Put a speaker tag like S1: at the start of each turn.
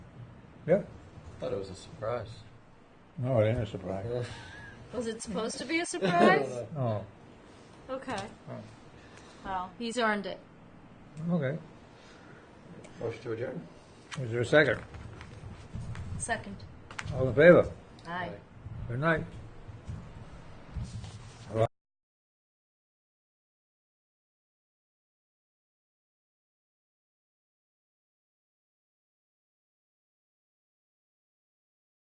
S1: Yeah.
S2: Thought it was a surprise.
S1: No, it ain't a surprise.
S3: Was it supposed to be a surprise?
S1: Oh,
S3: okay. Well, he's earned it.
S1: okay.
S2: Motion to adjourn.
S1: Is there a second?
S3: Second.
S1: All in favor?
S3: Aye.
S1: Good night.